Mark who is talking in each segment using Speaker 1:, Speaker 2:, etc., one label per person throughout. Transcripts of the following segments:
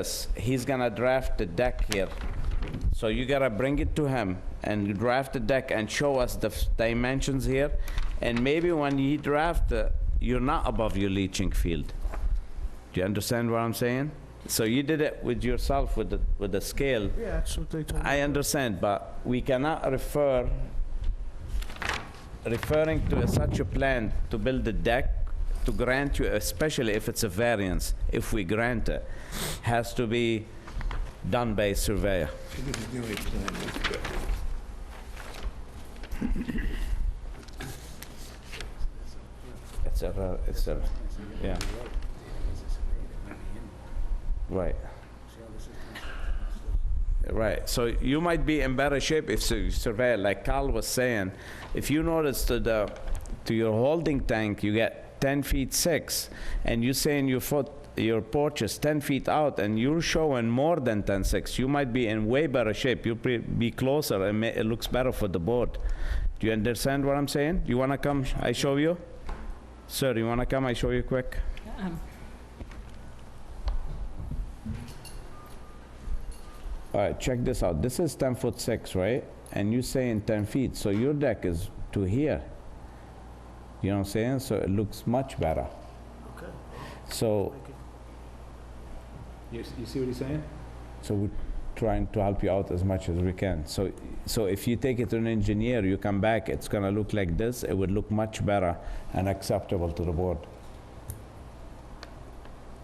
Speaker 1: this, he's gonna draft the deck here. So you gotta bring it to him and draft the deck and show us the f- dimensions here. And maybe when you draft, uh, you're not above your leaching field. Do you understand what I'm saying? So you did it with yourself with the, with the scale.
Speaker 2: Yeah, that's what they told me.
Speaker 1: I understand, but we cannot refer, referring to such a plan to build a deck, to grant you, especially if it's a variance, if we grant it, has to be done by a surveyor. It's a, ra- it's a, yeah. Right. Right, so you might be in better shape if you survey, like Carl was saying, if you notice to the, to your holding tank, you get ten feet six, and you saying your foot, your porch is ten feet out, and you're showing more than ten six, you might be in way better shape, you'll pre- be closer, and ma- it looks better for the board. Do you understand what I'm saying? You wanna come, sh- I show you? Sir, you wanna come, I show you quick? All right, check this out. This is 10 foot 6, right? And you're saying 10 feet, so your deck is to here. You know what I'm saying? So it looks much better.
Speaker 2: Okay.
Speaker 1: So,
Speaker 3: You, you see what he's saying?
Speaker 1: so we're trying to help you out as much as we can. So, so if you take it to an engineer, you come back, it's gonna look like this. It would look much better and acceptable to the board.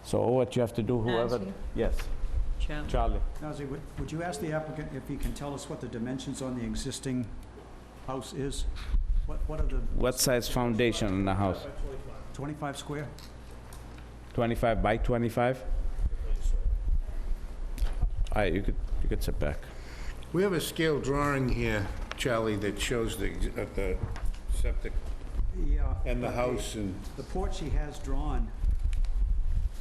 Speaker 1: So what you have to do, whoever,
Speaker 4: Nancy.
Speaker 1: yes, Charlie.
Speaker 5: Nazir, would, would you ask the applicant if he can tell us what the dimensions on the existing house is? What, what are the
Speaker 1: What size foundation in the house?
Speaker 5: 25 square?
Speaker 1: 25 by 25? All right, you could, you could sit back.
Speaker 6: We have a scale drawing here, Charlie, that shows the, ex- of the septic
Speaker 5: Yeah.
Speaker 6: and the house and,
Speaker 5: uh, The porch he has drawn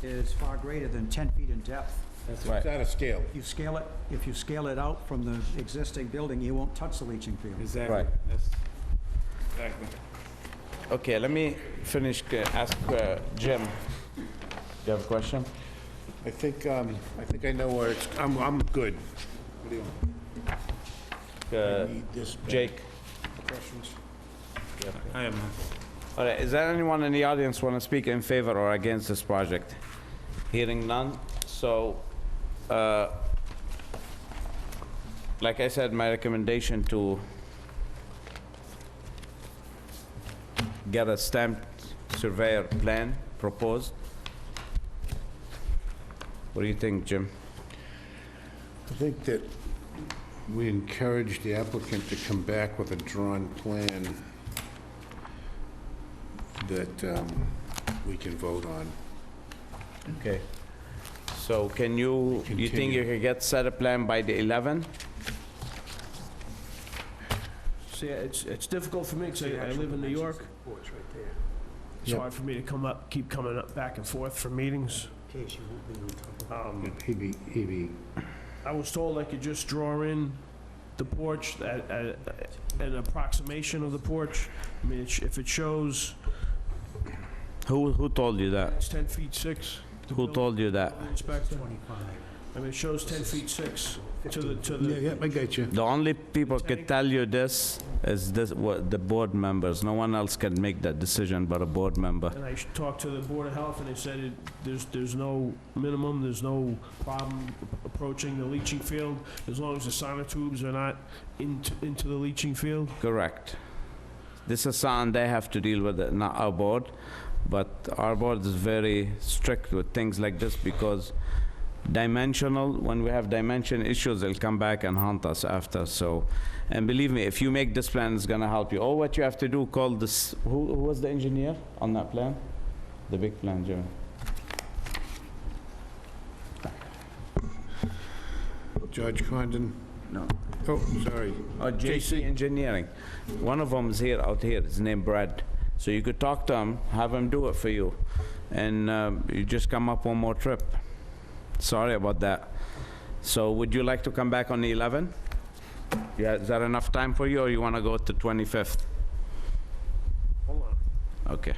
Speaker 5: is far greater than 10 feet in depth.
Speaker 6: it's
Speaker 1: Right.
Speaker 6: out of scale.
Speaker 5: You scale it, if you scale it out from the existing building, you won't touch the leaching field.
Speaker 3: Exactly.
Speaker 1: Right.
Speaker 3: That's- Exactly.
Speaker 1: Okay, let me finish, uh, ask uh, Jim. You have a question?
Speaker 6: I think, um, I think I know where it's, I'm, I'm good. What do you want?
Speaker 1: Uh,
Speaker 6: Need this back.
Speaker 1: Jake?
Speaker 6: Questions?
Speaker 3: I am,
Speaker 1: All right, is there anyone in the audience want to speak in favor or against this project? Hearing none, so, uh, like I said, my recommendation to get a stamped surveyor plan proposed. What do you think, Jim?
Speaker 6: I think that we encourage the applicant to come back with a drawn plan that um, we can vote on.
Speaker 1: Okay. So can you, you think you
Speaker 6: Continue.
Speaker 1: can get set a plan by the 11?
Speaker 2: See, it's, it's difficult for me, because I I live in New York. It's hard for me to come up, keep coming up back and forth for meetings. Um,
Speaker 6: He'd be, he'd be
Speaker 2: I was told I could just draw in the porch, at- at- an approximation of the porch. I mean, it sh- if it shows
Speaker 1: Who, who told you that?
Speaker 2: it's 10 feet 6. the
Speaker 1: Who
Speaker 2: building
Speaker 1: told you that?
Speaker 2: Inspector, I mean, it shows 10 feet 6 to the, to the.
Speaker 6: Yeah, yeah, I got you.
Speaker 1: The only people could tell you this is this, what, the board members. No one else can make that decision but a board member.
Speaker 2: And I sh- talked to the Board of Health, and they said it, there's, there's no minimum, there's no problem approaching the leaching field, as long as the sonotubes are not into, into the leaching field.
Speaker 1: Correct. This is something they have to deal with, uh, not our board. But our board is very strict with things like this because dimensional, when we have dimension issues, they'll come back and hunt us after, so. And believe me, if you make this plan, it's gonna help you. All what you have to do, call this, who, who was the engineer on that plan? The big plan, Jim?
Speaker 6: George Condon?
Speaker 1: No.
Speaker 6: Oh, sorry.
Speaker 1: Or JC Engineering. One of them's here, out here, his name Brad. So you could talk to him, have him do it for you. And um, you just come up one more trip. Sorry about that. So would you like to come back on the 11? Yeah, is that enough time for you, or you want to go to 25th?
Speaker 2: Hold on.
Speaker 1: Okay.